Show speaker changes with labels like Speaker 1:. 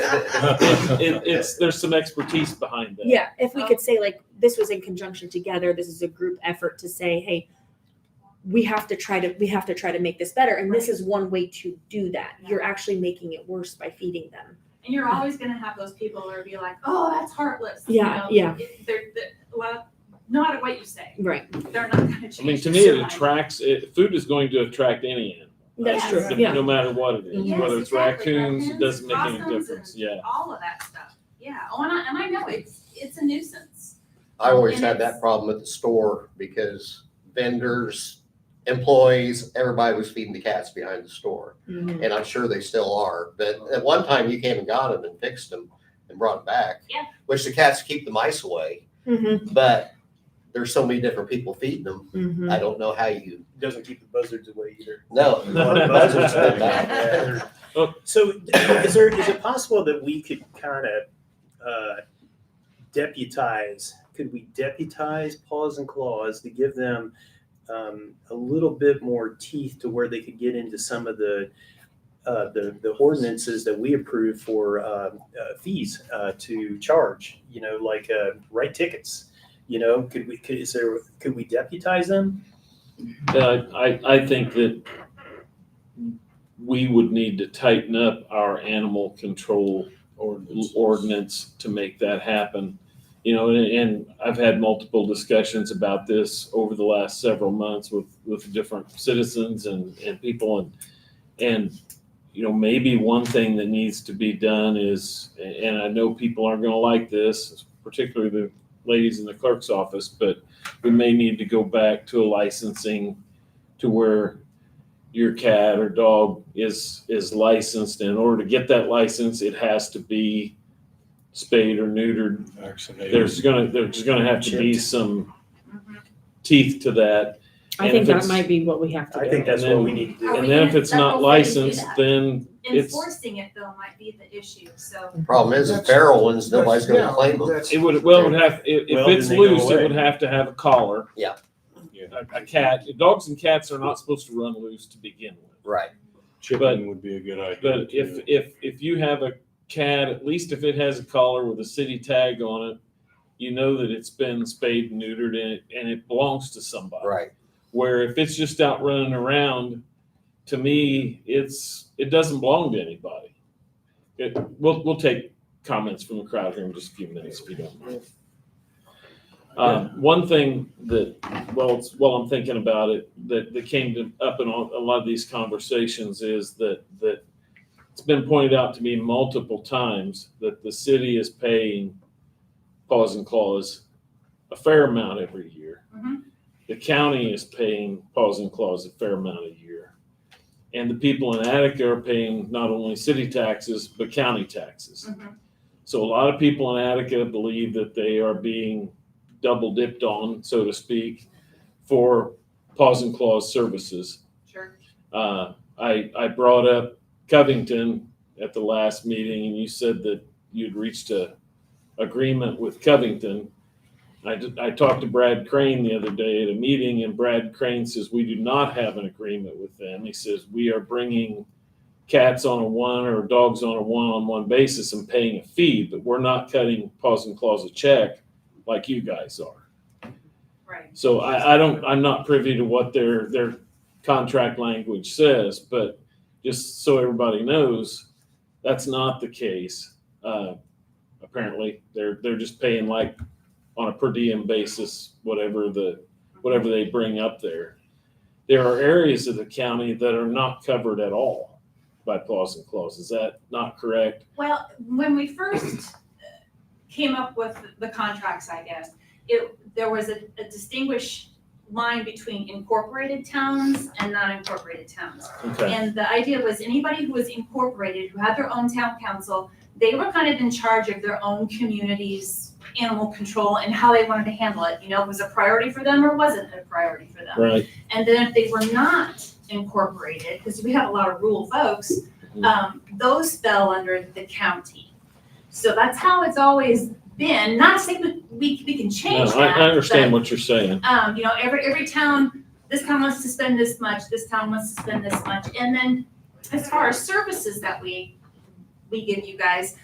Speaker 1: it, it's there's some expertise behind that.
Speaker 2: Yeah, Um, if we could say like, this was in conjunction together, this is a group effort to say, hey, we have to try to, we have to try to make this better, and this is one way to do that. You're actually making it worse by feeding them.
Speaker 3: And you're always gonna have those people who are be like, oh, that's heartless.
Speaker 2: Yeah,
Speaker 3: you
Speaker 2: yeah.
Speaker 3: know, it- They're, they're, well, no matter what you say,
Speaker 2: Right.
Speaker 3: they're not gonna change.
Speaker 1: I mean, to me, it
Speaker 3: their mind.
Speaker 1: attracts. It, food is going to attract any animal.
Speaker 2: That's
Speaker 3: Yes.
Speaker 2: true,
Speaker 1: No-
Speaker 2: yeah.
Speaker 1: No matter what it is,
Speaker 3: Yes,
Speaker 1: whether it's
Speaker 3: exactly.
Speaker 1: raccoons, it
Speaker 3: Raccoons,
Speaker 1: doesn't make any
Speaker 3: possums,
Speaker 1: difference.
Speaker 3: and
Speaker 1: Yeah.
Speaker 3: All of that stuff. Yeah. Oh, and I, and I know it's, it's a nuisance.
Speaker 4: I always
Speaker 3: And
Speaker 4: had
Speaker 3: it's-
Speaker 4: that problem at the store because vendors, employees, everybody was feeding the cats behind the store.
Speaker 2: Mhm.
Speaker 4: And I'm sure they still are, but at one time you came and got them and fixed them and brought them back.
Speaker 3: Yeah.
Speaker 4: Which the cats keep the mice away,
Speaker 1: Mm-hmm.
Speaker 2: Mhm.
Speaker 4: but there's so many different people feeding them.
Speaker 2: Mhm.
Speaker 4: I don't know how you,
Speaker 5: Doesn't keep the buzzards away either.
Speaker 4: no. the buzzards been back.
Speaker 5: So is there, is it possible that we could kind of uh, deputize, could we deputize paws and claws to give them um, a little bit more teeth to where they could get into some of the, uh, the, the ordinances that we approve for um, uh, fees uh, to charge, you know, like uh, write tickets? You know, could we, could, is there, could we deputize them?
Speaker 1: Uh, I, I think that we would need to tighten up our animal control ordinance, to make that happen. You know, and, and I've had multiple discussions about this over the last several months with, with different citizens and, and people and, and, you know, maybe one thing that needs to be done is, and I know people aren't gonna like this, particularly the ladies in the clerk's office, but we may need to go back to a licensing to where your cat or dog is is licensed. In order to get that license, it has to be spayed or neutered.
Speaker 6: Vaccinated.
Speaker 1: There's gonna there's gonna have to be
Speaker 5: Chipped.
Speaker 1: some
Speaker 3: Mhm.
Speaker 1: teeth to that.
Speaker 7: I
Speaker 1: And
Speaker 7: think
Speaker 1: if
Speaker 7: that
Speaker 1: it's-
Speaker 7: might be what we have to do.
Speaker 5: I think that's what we need to do.
Speaker 3: Are we
Speaker 1: And then if
Speaker 3: gonna-
Speaker 1: it's not
Speaker 3: that's what we need to do
Speaker 1: licensed,
Speaker 3: that.
Speaker 1: then it's
Speaker 3: Enforcing it though might be the issue, so.
Speaker 4: Problem is, the
Speaker 8: That's-
Speaker 4: feral ones, nobody's gonna
Speaker 8: That's-
Speaker 4: claim
Speaker 8: yeah,
Speaker 4: them.
Speaker 8: that's-
Speaker 1: it would well it would have if, if
Speaker 5: Well,
Speaker 1: it's
Speaker 5: then they go
Speaker 1: loose, it
Speaker 5: away.
Speaker 1: would have to have a collar.
Speaker 4: Yeah.
Speaker 1: A, a cat. Dogs and cats are not supposed to run loose to begin with.
Speaker 4: Right.
Speaker 1: but-
Speaker 6: Chipping would be a good idea.
Speaker 1: But if,
Speaker 6: too.
Speaker 1: if, if you have a cat, at least if it has a collar with a city tag on it, you know that it's been spayed and neutered and it, and it belongs to somebody.
Speaker 4: Right.
Speaker 1: Where if it's just out running around, to me, it's, it doesn't belong to anybody. It, we'll, we'll take comments from the crowd here in just a few minutes if you don't mind. Um, one thing that, well, it's, while I'm thinking about it, that, that came to, up in all, a lot of these conversations is that, that it's been pointed out to me multiple times that the city is paying Paws and Claws a fair amount every year.
Speaker 3: Mhm.
Speaker 1: The county is paying Paws and Claws a fair amount a year. And the people in Attica are paying not only city taxes, but county taxes.
Speaker 3: mhm.
Speaker 1: So a lot of people in Attica believe that they are being double dipped on, so to speak, for paws and claws services.
Speaker 3: Sure.
Speaker 1: Uh, I, I brought up Covington at the last meeting and you said that you'd reached a agreement with Covington. I, did- I talked to Brad Crane the other day at a meeting and Brad Crane says, we do not have an agreement with them. He says, we are bringing cats on a one or dogs on a one-on-one basis and paying a fee, but we're not cutting paws and claws a check like you guys are.
Speaker 3: Right.
Speaker 1: So I, I don't, I'm not privy to what their, their contract language says, but just so everybody knows, that's not the case. Uh, apparently, they're, they're just paying like on a per diem basis, whatever the, whatever they bring up there. There are areas of the county that are not covered at all by clause and clause. Is that not correct?
Speaker 3: Well, when we first uh, came up with the contracts, I guess, it, there was a, a distinguished line between incorporated towns and non-incorporated towns.
Speaker 1: Okay,
Speaker 3: And the idea was anybody who was incorporated, who had their own town council, they were kind of in charge of their own community's animal control and how they wanted to handle it. You know, was it a priority for them or wasn't it a priority for them?
Speaker 1: right.
Speaker 3: And then if they were not incorporated, because we have a lot of rural folks,
Speaker 1: Mhm.
Speaker 3: um, those fell under the county. So that's how it's always been, not to say we, we, we can
Speaker 1: No,
Speaker 3: change that.
Speaker 1: I, I understand
Speaker 3: but,
Speaker 1: what you're saying.
Speaker 3: Um, you know, every, every town, this town wants to spend this much, this town wants to spend this much. And then as far as services that we, we give you guys,